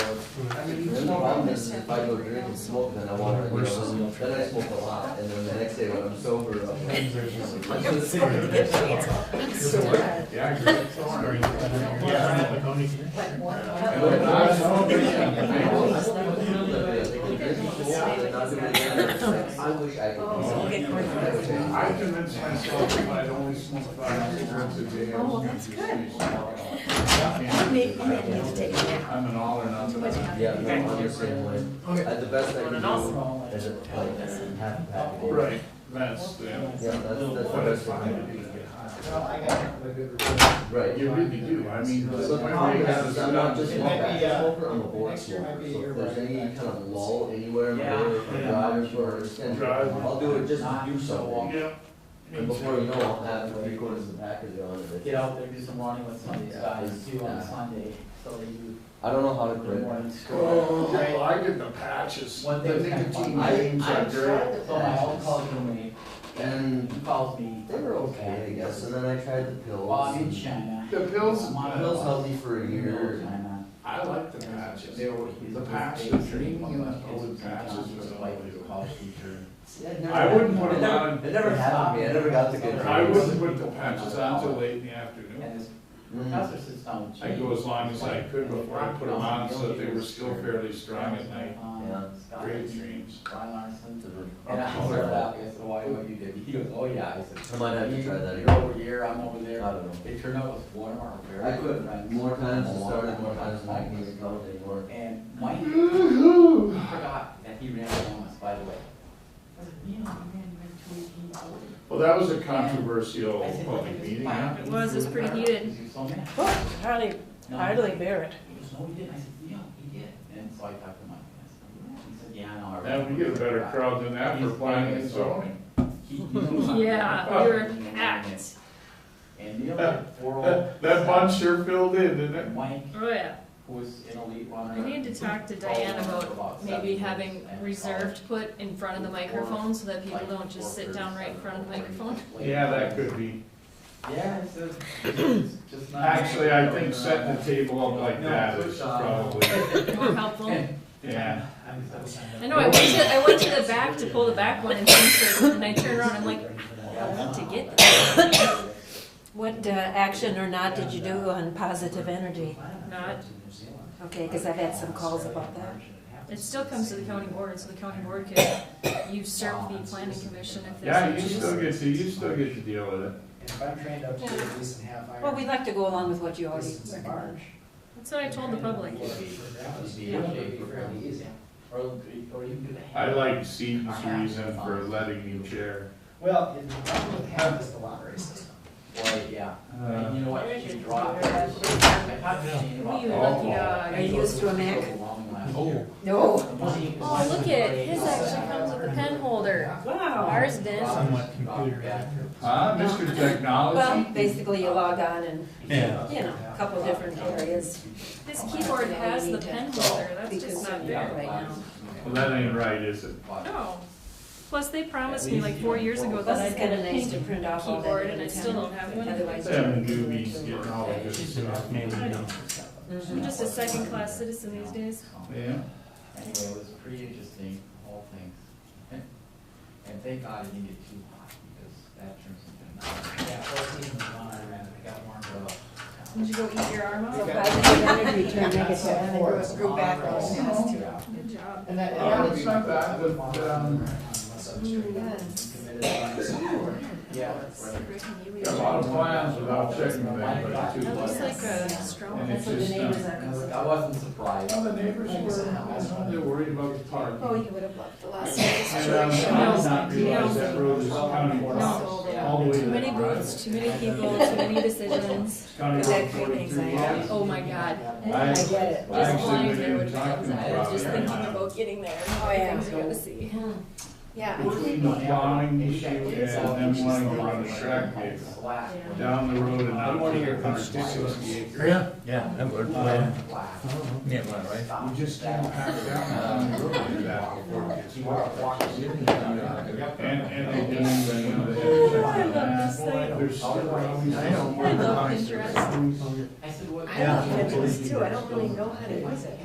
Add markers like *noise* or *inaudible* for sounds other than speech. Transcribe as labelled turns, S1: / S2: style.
S1: I mean, you
S2: Then the problem is, is if I go drink and smoke, then I want to, you know, then I smoke a lot, and then the next day when I'm sober, I'm like. I'm gonna sit here and get drunk. But I smoke, and I know I smoke a little bit, I think the drink and smoke, and then I'll do it again. I wish I could.
S3: Oh,
S4: I convinced myself that I'd only smoke five cigarettes a day.
S2: well, that's good.
S4: *laughs* I'm
S2: Maybe, maybe you need to take a nap.
S4: an all or nothing.
S2: Yeah.
S4: Yeah, no, I'm the same way. Uh, the best I can do is a, like, half a pack. a day. Right, that's, yeah.
S2: Yeah.
S4: Yeah, that's, that's the best I can do. Right.
S5: You really do, I mean.
S4: So the problem is, is I'm not just one bad smoker, I'm a board smoker,
S5: Next
S4: so
S5: year
S4: if there's
S5: might be a
S4: any
S5: year,
S4: kind of lull anywhere, in my day, if I'm
S5: Yeah.
S4: driving or extended,
S5: Drive.
S4: I'll do it just to do something.
S5: Yeah.
S4: And before you know, it, I'll have three quarters of the package on it.
S6: Get out there, do some running with some of these
S4: Yeah,
S6: guys
S4: it's-
S6: too on
S4: yeah.
S6: Sunday, so that you,
S4: I don't know how to
S6: in the
S4: quit.
S6: morning score.
S4: Oh.
S5: I did the patches,
S6: One
S5: the
S6: thing that I
S5: nicotine
S6: find-
S5: games
S4: I-
S5: are
S4: I
S5: great.
S6: So my old college roommate,
S4: And
S6: he calls me,
S4: they were okay, I guess, and then I tried the
S6: well, I'm in
S4: pills.
S6: China.
S5: The pills,
S6: I'm on a-
S4: Pills held me for a
S6: I'm in
S4: year.
S6: China.
S5: I like the patches, they were, the patches, the dreamy and old patches was all
S6: College teacher.
S4: See, I'd never-
S5: I wouldn't want
S4: It
S5: to
S4: never-
S5: run,
S4: It never stopped me, I never got the good.
S5: I
S4: drugs.
S5: wouldn't put the patches on till late in the afternoon.
S6: And this
S4: Mm.
S6: professor sits down with
S5: I'd go as long as I could before I put them on, so that they were still fairly strong at night.
S6: Uh,
S5: Great dreams.
S6: Brian Larson.
S4: Mhm.
S6: And I started out, I said, why, what you did, he goes, oh yeah, I said.
S4: I might have to try that
S6: You're
S4: again.
S6: over here, I'm over
S4: I
S6: there.
S4: don't know.
S6: It turned out it was Walmart, very
S4: I
S6: good
S4: quit
S6: friends.
S4: more times than started, more times than I can count anymore.
S6: And Mike
S4: *laughs*
S6: forgot that he ran on us, by the way. I said, you know, he ran like two eighteen hours.
S5: Well, that was a
S6: I
S5: controversial
S6: said, "Look at
S5: public
S6: this
S5: meeting,
S6: fire."
S5: huh?
S7: It was, it was pretty heated.
S6: He was so mad.
S7: Hardly,
S6: No,
S7: hardly bear it.
S6: He goes, no, he didn't. I said, yeah, he did. And so I talked to Mike, and I said, "Yeah." he said, yeah, I know. I
S5: Now, we get a better crowd than that for planning and
S6: *laughs*
S5: zoning.
S6: He- he was
S7: *laughs*
S6: like-
S7: Yeah, we were packed.
S6: And
S5: *laughs*
S6: the other four old.
S5: That bunch sure filled in, didn't it?
S6: Mike,
S7: Oh, yeah.
S6: who was an elite runner.
S7: I need to talk to Diane about maybe having reserved put in front of the microphone so that people don't just sit down right in front of the microphone.
S5: Yeah, that could be.
S6: Yeah, it's a, it's just not.
S5: Actually, I think setting the table up like that is probably,
S7: More helpful.
S5: yeah.
S7: I know, I went to, I went to the back to pull the back one and things and I turned around, I'm like,
S6: *laughs*
S7: I want to get that.
S6: *coughs*
S8: What uh, action or not did you do on positive energy?
S7: Not,
S8: Okay, because I've had some calls about that.
S7: it still comes to the county board, so the county board can usurp the planning commission if
S5: Yeah,
S7: they
S5: you
S7: so
S5: still
S7: choose.
S5: get to, you still get to deal with it.
S3: If I'm trained up to at least in half iron.
S8: Well, we'd like to go along with what you already
S3: distance and
S8: recommend.
S3: barge.
S7: That's what I told the public.
S6: Or, or you can do the.
S5: I like Seaton's reason for letting me chair.
S3: Well, if the problem with half is the lottery system.
S6: Well, yeah, and
S5: Uh,
S6: you know what, she dropped.
S7: We
S6: We
S7: lucky
S8: Are
S7: dog.
S8: you used to a Mac?
S6: Oh.
S8: No.
S7: Oh, look at, his actually comes with a pen holder.
S8: Wow.
S7: Ours didn't.
S6: Somewhat computer accurate.
S5: Huh, Mr. Technology?
S8: Well, basically you log on and,
S3: Yeah.
S8: you know, a couple different areas.
S7: This keyboard has the pen holder, that's just not fair.
S8: right now.
S5: Well, that ain't right, is it?
S7: No. Plus, they promised me like four years ago that
S8: Plus
S7: I'd
S8: it's kind
S7: get
S8: of
S7: a
S8: nice to
S7: pink
S8: print off all that.
S7: keyboard and I still don't have one.
S8: Otherwise. you
S5: Them
S8: wouldn't do it
S5: newbies
S8: till-
S5: getting all of this stuff.
S7: I know. I'm
S6: Mm-hmm.
S8: Mhm.
S7: just a second class citizen these days.
S5: Yeah.
S6: Anyway, it was pretty interesting, all things. And thank God it didn't get too hot, because that turns into.
S3: Yeah, fourteen was one I ran, I got warmed up.
S7: Did you go eat your arm
S8: So
S7: off?
S8: positive energy, turn *laughs* negative, and then go screw back on this too.
S7: Good job.
S3: And that,
S5: Oh,
S3: and that
S5: it's
S3: was not
S5: not bad,
S3: bad,
S5: but, um,
S6: Yeah.
S5: Got a lot of plans without checking with anybody too.
S7: That looks
S5: but-
S7: like a straw.
S5: And it's
S8: That's what the
S5: just,
S8: neighbors
S5: um,
S6: I was-
S8: are concerned.
S6: I wasn't surprised.
S5: well, the neighbors were, they were worried about the park.
S8: Oh, you would have loved the last
S5: And um, I did not realize that road is county road,
S7: No.
S5: all the way to
S7: Too
S5: the
S7: many
S5: garage.
S7: booths, too many people, too many decisions.
S5: County
S8: That
S5: road
S8: creates
S5: forty-three.
S8: anxiety.
S5: I
S7: Oh my god.
S8: I get it.
S5: I
S7: Just
S5: actually
S7: lying
S5: went in
S7: there would
S5: and talked
S7: comes
S5: to him
S7: out.
S5: about
S7: Just thinking
S5: it.
S7: about getting there.
S8: Oh, yeah.
S7: Things you're gonna see.
S8: Yeah.
S5: Between the plowing issue and them wanting to run a track gate
S6: Slack.
S5: down the road and
S6: I
S5: not
S6: want to
S5: take
S6: hear
S5: a
S6: from
S5: hundred sixty acres.
S9: Yeah, yeah, that would, well, yeah, well, right.
S5: You just can't pack it down the road like that before it gets wet. And, and they didn't even, you know, they
S7: Oh, I
S5: had to
S7: love
S5: check
S7: this
S5: that.
S7: thing.
S5: There's still probably some
S7: I love
S5: work behind
S7: Pinterest.
S5: it.
S6: I said, what?
S8: I love Pinterest too, I don't really know how to use it.